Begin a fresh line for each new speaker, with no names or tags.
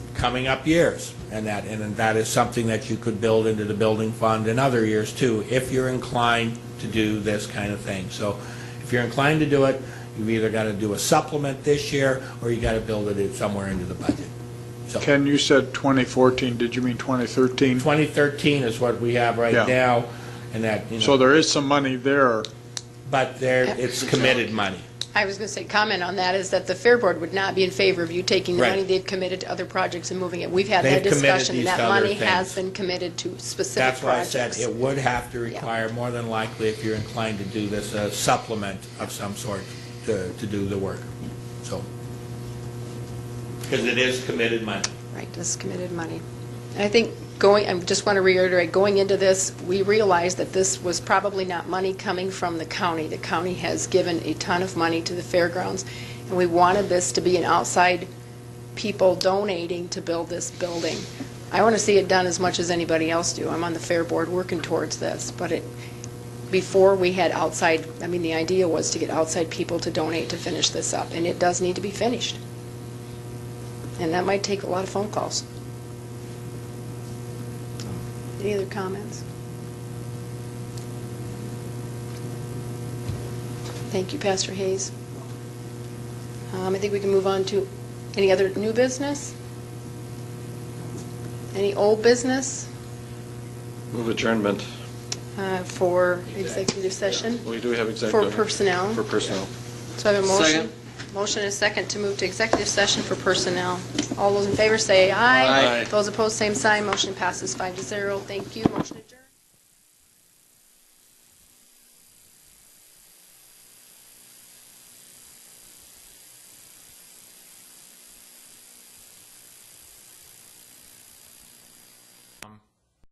coming up years. And that, and that is something that you could build into the building fund in other years too, if you're inclined to do this kind of thing. So if you're inclined to do it, you've either got to do a supplement this year, or you got to build it in somewhere into the budget. So
Ken, you said 2014, did you mean 2013?
2013 is what we have right
Yeah.
now, and that, you
So
know,
there is some money there.
but there, it's committed money.
I was going to say, comment on that is that the Fair Board would not be in favor of you taking the
Right.
money they've committed to other projects and moving it. We've had
They've
that
committed
discussion.
these
and
to
That
other
money has
things.
been committed to specific
That's why I said
projects.
it would have to require, more than likely, if you're inclined to do this, a supplement of some sort to, to do the work, so. Because it is committed money.
Right, this is committed money. And I think going, I just want to reiterate, going into this, we realized that this was probably not money coming from the county. The county has given a ton of money to the fairgrounds, and we wanted this to be an outside people donating to build this building. I want to see it done as much as anybody else do. I'm on the fair board working towards this, but it, before we had outside, I mean, the idea was to get outside people to donate to finish this up, and it does need to be finished. And that might take a lot of phone calls. Any other comments? Thank you, Pastor Hayes. Um, I think we can move on to any other new business? Any old business
Move adjournment.
uh, for executive session?
We do have
For
executive.
personnel?
For personnel.
So I have a motion.
Second.
Motion and a second to move to executive session for personnel. All those in favor say aye.
Aye.
Those opposed, same sign. Motion passes five to zero. Thank you. Motion adjourned.